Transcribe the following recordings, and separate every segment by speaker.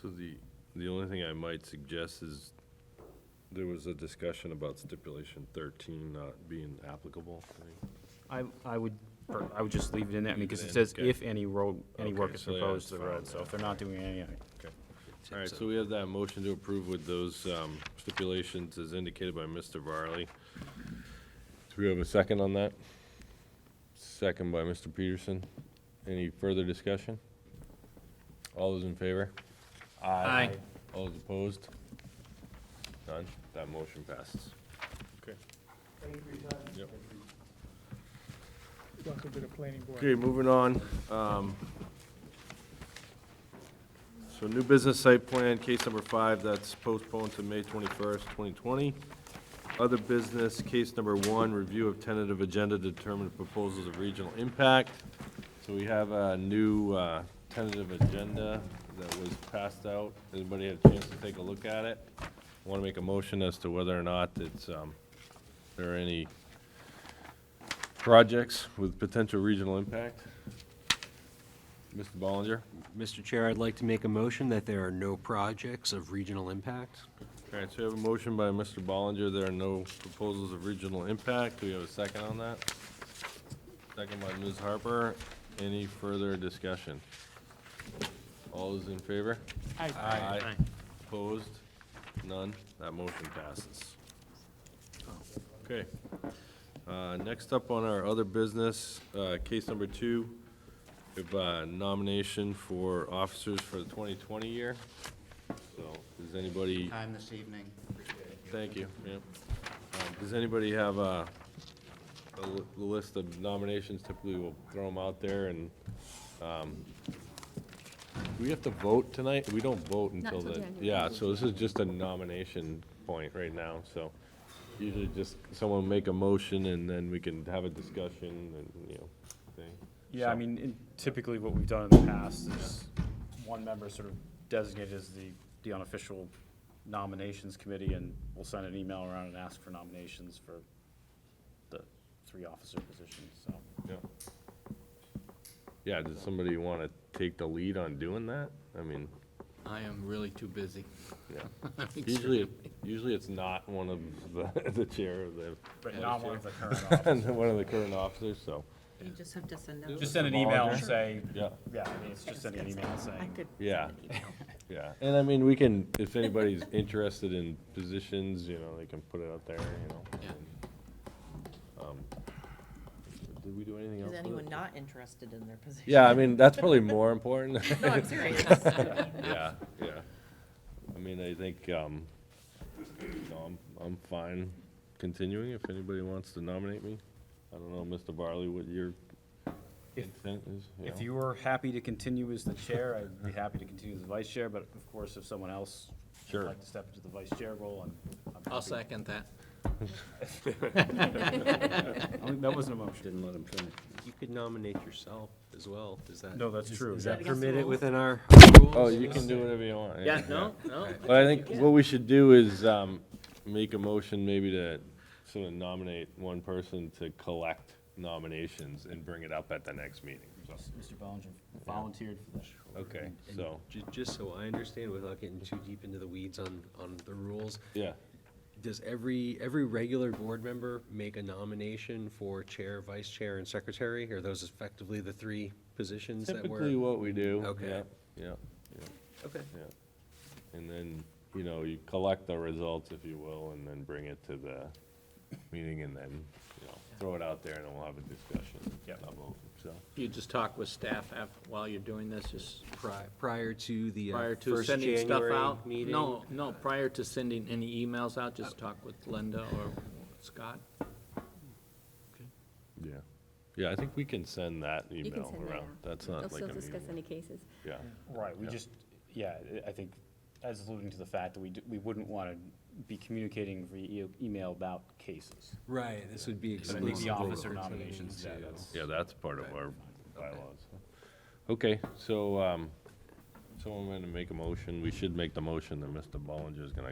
Speaker 1: So the, the only thing I might suggest is, there was a discussion about stipulation thirteen not being applicable. I think.
Speaker 2: I, I would, per- I would just leave it in there, I mean, because
Speaker 1: Leave
Speaker 2: it
Speaker 1: it in,
Speaker 2: says
Speaker 1: okay.
Speaker 2: if any road, any work
Speaker 1: Okay,
Speaker 2: is
Speaker 1: so yeah,
Speaker 2: proposed to
Speaker 1: it's
Speaker 2: the
Speaker 1: fine,
Speaker 2: road, so
Speaker 1: yeah.
Speaker 2: if they're not doing any,
Speaker 1: All right, so we have that motion to approve with those um, stipulations as indicated by Mr. Varley. Do we have a second on that? Second by Mr. Peterson. Any further discussion? All those in favor?
Speaker 2: Aye.
Speaker 1: All those opposed? None? That motion passes.
Speaker 3: Okay.
Speaker 1: Yep.
Speaker 3: Welcome to the planning board.
Speaker 1: Okay, moving on. um, So new business site plan, case number five, that's postponed to May 21st, 2020. Other business, case number one, review of tentative agenda to determine proposals of regional impact. So we have a new uh, tentative agenda that was passed out. Everybody had a chance to take a look at it? Want to make a motion as to whether or not it's, um, there are any projects with potential regional impact? Mr. Ballinger,
Speaker 4: Mr. Chair, I'd like to make a motion that there are no projects of regional impact.
Speaker 1: all right, so we have a motion by Mr. Ballinger, there are no proposals of regional impact, do we have a second on that? Second by Ms. Harper, any further discussion? All those in favor?
Speaker 3: Aye.
Speaker 1: Aye. Opposed? None? That motion passes. Okay. Uh, Next up on our other business, uh, case number two, we have a nomination for officers for the 2020 year. So, does anybody,
Speaker 5: time this evening.
Speaker 1: thank you, yep. Um, Does anybody have a, a li- list of nominations? Typically, we'll throw them out there and, um, do we have to vote tonight? We don't vote until
Speaker 6: till
Speaker 1: the,
Speaker 6: January.
Speaker 1: yeah, so this is just a nomination point right now, so. Usually just someone make a motion and then we can have a discussion and, you know, thing.
Speaker 2: Yeah, I
Speaker 1: So-
Speaker 2: mean, in- typically what we've done in the past is one member sort of designated as the, the unofficial nominations committee, and we'll send an email around and ask for nominations for the three officer positions, so.
Speaker 1: Yeah. Yeah, does somebody want to take the lead on doing that? I mean,
Speaker 5: I am really too busy.
Speaker 1: yeah.
Speaker 5: I think so.
Speaker 1: Usually, it- usually it's not one of the, the chair of the,
Speaker 2: But
Speaker 5: Yeah.
Speaker 2: not one of the current officers.
Speaker 1: one of the current officers, so,
Speaker 6: You just have to send out.
Speaker 2: Just send an email and
Speaker 1: Sure.
Speaker 2: say,
Speaker 1: yeah,
Speaker 2: yeah, I mean, it's just sending an email
Speaker 6: I
Speaker 2: saying,
Speaker 6: could.
Speaker 1: Yeah.
Speaker 6: send an email.
Speaker 1: yeah. And I mean, we can, if anybody's interested in positions, you know, they can put it out there, you know.
Speaker 5: Yeah.
Speaker 1: Um, Did we do anything else?
Speaker 6: Is
Speaker 1: with it?
Speaker 6: anyone not interested in their position?
Speaker 1: Yeah, I mean, that's probably more important.
Speaker 6: No, I'm serious.
Speaker 1: Yeah, yeah. I mean, I think, um, no, I'm, I'm fine continuing if anybody wants to nominate me. I don't know, Mr. Barley, what your
Speaker 2: If-
Speaker 1: intent is, you
Speaker 2: If
Speaker 1: know?
Speaker 2: you were happy to continue as the chair, I'd be happy to continue as the vice chair, but of course, if someone else would
Speaker 1: Sure.
Speaker 2: like to step into the vice chair role, I'm, I'm happy.
Speaker 5: I'll second that.
Speaker 2: I think That wasn't a motion.
Speaker 4: Didn't let him finish. You could nominate yourself as well, is that?
Speaker 2: No, that's true.
Speaker 4: Is
Speaker 2: yeah.
Speaker 4: that
Speaker 6: against the
Speaker 4: permitted
Speaker 6: rules?
Speaker 4: within our rules?
Speaker 1: Oh, you can do whatever you want.
Speaker 4: Yeah, no, no.
Speaker 1: But I think what we should do is, um, make a motion maybe to sort of nominate one person to collect nominations and bring it up at the next meeting, so.
Speaker 2: Mr. Bellinger volunteered for that.
Speaker 1: Okay,
Speaker 4: And
Speaker 1: so,
Speaker 4: ju- Just so I understand, without getting too deep into the weeds on, on the rules,
Speaker 1: yeah,
Speaker 4: does every, every regular board member make a nomination for chair, vice chair, and secretary? Are those effectively the three positions that were?
Speaker 1: typically what we do.
Speaker 4: Okay.
Speaker 1: Yeah, Yeah, yeah.
Speaker 4: Okay.
Speaker 1: Yeah, and then, you know, you collect the results, if you will, and then bring it to the meeting and then, you know, throw it out there and we'll have a discussion.
Speaker 2: Yep.
Speaker 1: about it, So,
Speaker 7: You just talk with staff af- while you're doing this, just
Speaker 4: Pri- Prior to the uh,
Speaker 7: prior to
Speaker 4: first
Speaker 7: sending stuff
Speaker 4: January
Speaker 7: out?
Speaker 4: meeting?
Speaker 7: No, no, prior to sending any emails out, just talk with Linda or Scott.
Speaker 1: yeah, yeah, I think we can send that
Speaker 6: You can
Speaker 1: email
Speaker 6: send that
Speaker 1: around,
Speaker 6: out.
Speaker 1: that's
Speaker 6: They'll
Speaker 1: not like
Speaker 6: still
Speaker 1: a
Speaker 6: discuss
Speaker 1: meeting.
Speaker 6: any cases.
Speaker 1: Yeah,
Speaker 2: Right, we
Speaker 1: Yeah.
Speaker 2: just, yeah, I- I think, as alluding to the fact that we, d- we wouldn't want to be communicating via e- email about cases.
Speaker 4: Right, this would be
Speaker 2: I think
Speaker 4: exclusive.
Speaker 2: the officer
Speaker 4: opportunity
Speaker 2: nominations, yeah,
Speaker 4: to-
Speaker 2: that's.
Speaker 1: yeah, that's part of our bylaws. Okay, so, um, someone gonna make a motion, we should make the motion that Mr. Bollinger's gonna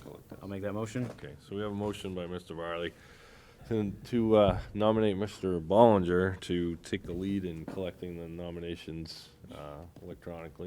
Speaker 1: collect that.
Speaker 2: I'll make that motion.
Speaker 1: Okay, so we have a motion by Mr. Varley to- to uh, nominate Mr. Bollinger to take the lead in collecting the nominations uh, electronically.